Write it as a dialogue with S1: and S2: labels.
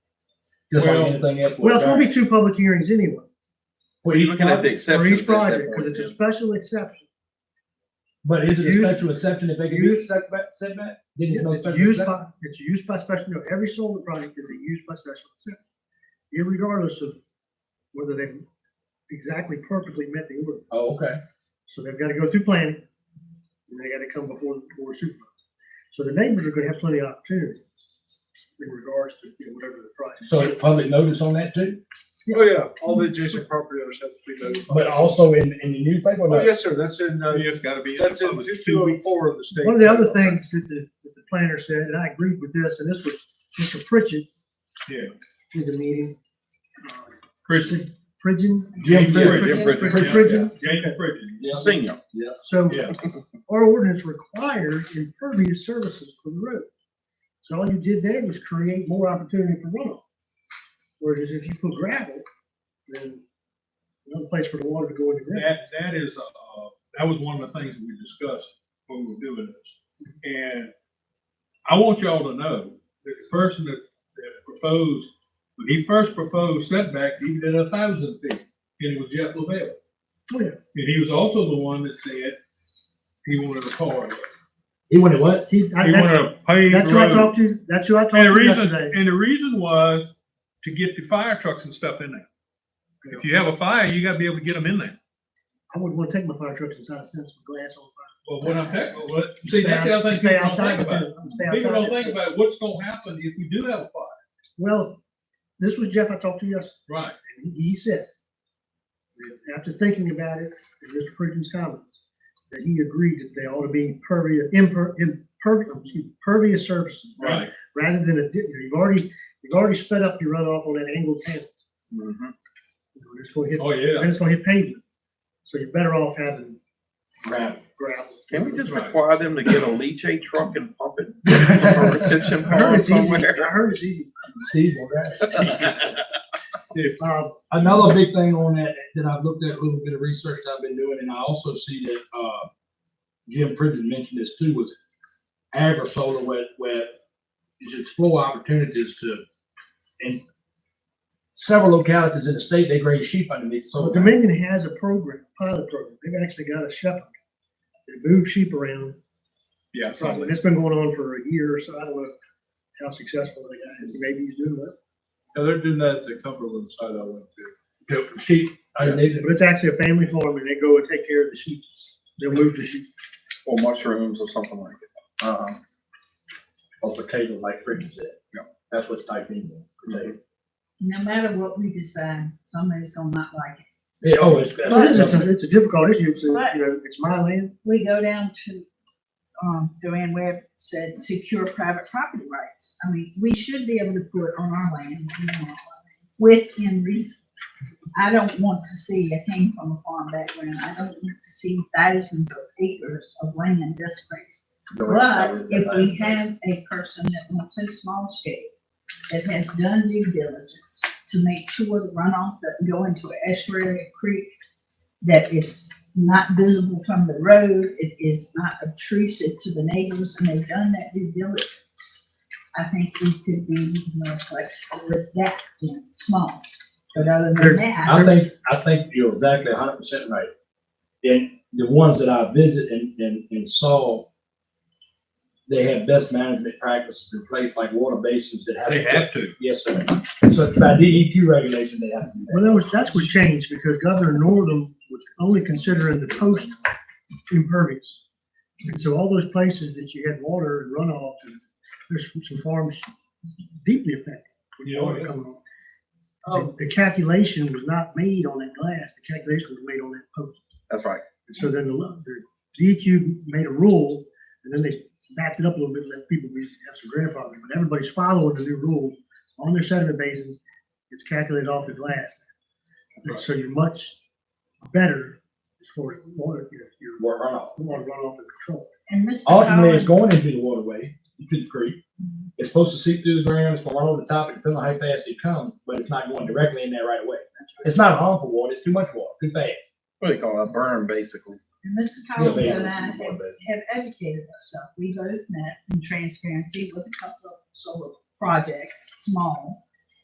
S1: just like
S2: Well-
S1: anything else.
S3: Well, it's gonna be two public hearings anyway,
S2: Well,
S4: You're looking at the
S3: for
S4: exceptions
S3: each
S4: at that
S3: project, because
S4: point.
S3: it's a special exception.
S1: But is it a
S3: Use-
S1: special exception if they can do a setback, setback? Then it's no
S3: It's
S1: special
S3: used
S1: exception.
S3: by, it's used by special, no, every solar project is a use by special exception, irregardless of whether they exactly perfectly met the order.
S1: Oh, okay.
S3: So they've got to go through planning, and they got to come before the board of supervisors. So the neighbors are going to have plenty of opportunity in regards to you know, whatever the price.
S1: So public notice on that too?
S5: Oh, yeah, all the adjacent property owners have to be notified.
S1: But also in, in the newspaper?
S5: Oh,
S1: like-
S5: yes, sir, that's in, uh,
S4: It's gotta be. in the
S5: that's in
S4: public-
S5: two oh four of the state.
S3: One of the other things that the, that the planner said, and I agreed with this, and this was Mr. Pritchett.
S5: Yeah.
S3: In the meeting. uh,
S4: Christian.
S3: Pridgen.
S1: Jim
S4: Yeah,
S1: Pridgen.
S4: Jim Bridges, yeah.
S3: Pridgen.
S4: Jacob Bridges, senior.
S3: So
S5: Yeah.
S3: our ordinance requires impervious services for the road. So all you did there was create more opportunity for runoff. Whereas if you put gravel, then another place for the water to go in the ground.
S6: That, that is, uh, that was one of the things we discussed when we were doing this. And I want y'all to know that the person that, that proposed, when he first proposed setbacks, he did a thousand feet, and it was Jeff LaBelle.
S3: Oh, yeah.
S6: And he was also the one that said he wanted a corridor.
S1: He wanted what?
S3: He- I-
S6: He wanted
S3: that's-
S6: a paved
S3: That's who I
S6: road.
S3: talked to, that's who I talked
S6: And the
S3: to
S6: reason,
S3: yesterday.
S6: and the reason was to get the fire trucks and stuff in there. If you have a fire, you gotta be able to get them in there.
S3: I wouldn't want to take my fire trucks inside, send some glass on fire.
S6: Well, what I'm, tech- well, what, see, that's the other thing
S3: Stay
S6: people don't
S3: outside
S6: think
S3: if
S6: about.
S3: it- stay
S6: People
S3: outside
S6: don't
S3: if
S6: think
S3: it-
S6: about what's gonna happen if we do have a fire.
S3: Well, this was Jeff I talked to yesterday.
S6: Right.
S3: And he, he said, that after thinking about it, and Mr. Pritchard's comments, that he agreed that they ought to be pervious, imper, impervious, pervious surfaces. Rather than a, di- you've already, you've already sped up your runoff on that angled panel.
S4: Mhm.
S3: You know, It's gonna hit,
S6: Oh, yeah.
S3: and it's gonna hit pavement. So you're better off having
S1: Gravel.
S3: gravel.
S4: Can we just
S6: Right.
S4: require them to get a leachate truck and pump it? from a retention
S3: I heard
S4: pond
S3: it's easy,
S4: Oh, somewhere?
S3: I heard it's easy.
S1: Steve, all right.
S3: Uh,
S1: um, Another big thing on that, that I've looked at, a little bit of research that I've been doing, and I also see that, uh, Jim Pridgen mentioned this too, was agri-solar where, where you should explore opportunities to, in several localities in the state, they graze sheep underneath
S3: Well,
S1: solar.
S3: Dominion has a program, pilot program. They've actually got a shepherd. They move sheep around.
S6: Yeah,
S3: Probably.
S6: something.
S3: It's been going on for a year or so. I don't know how successful the guy is. Maybe he's doing well.
S5: Yeah, they're doing that at the Cumberland site I went to.
S1: To sheep underneath it.
S3: But it's actually a family farm and they go and take care of the sheep. They'll move the sheep.
S4: Or mushrooms or something like that. Uh-huh.
S1: Or Oh, potato, like Pridgen said.
S4: Yeah.
S1: That's what's typed in, there, potato.
S7: No matter what we decide, somebody's gonna not like it.
S1: Yeah, oh, it's.
S3: So it is- It's a, it's a difficult issue. It's, a- you know, it's my land.
S7: We go down to, um, Joanne Webb said, secure private property rights. I mean, we should be able to put on our land what we want, within reason. I don't want to see, I came from a farm background, I don't want to see thousands of acres of land desecrated. But if we have a person that wants a small scale, that has done due diligence to make sure the runoff doesn't go into an estuary, a creek, that it's not visible from the road, it is not obtrusive to the neighbors, and they've done that due diligence. I think we could be more flexible with that, you know, small. But other
S3: There-
S7: than that,
S1: I think, I think you're exactly hundred percent right. And the ones that I visited and, and, and saw, they have best management practices in place, like water basins that have.
S6: They have to.
S1: Yes, sir. So it's by DEQ regulation, they have to do
S3: Well, that was, that's what changed because Governor Northam was only considering the coast impervious. And so all those places that you had water and runoff, and there's some farms deeply affected. with
S6: Yeah, oh,
S3: water
S6: yeah.
S3: coming on. The- The calculation was not made on that glass, the calculation was made on that post.
S4: That's right.
S3: And so then the, lo- the DEQ made a rule, and then they backed it up a little bit, let people be, have some grandfathering, but everybody's following the new rule on their sediment basins, it's calculated off the glass. And so you're much better as far as water, your, your
S1: that. Water runoff.
S3: water runoff and control.
S7: and Mr.
S1: Ultimately, it's
S7: Collins,
S1: going into the waterway, into the creek. It's supposed to seep through the ground, it's gonna run over the top, depending on how fast it comes, but it's not going directly in there right away. It's not harmful water, it's too much water, too fast.
S4: What do they call it? A burn, basically.
S7: and Mr.
S1: Yeah,
S7: Collins and I
S1: basically,
S7: have
S1: water basin.
S7: have educated ourselves. We both met in transparency with a couple of solar projects, small.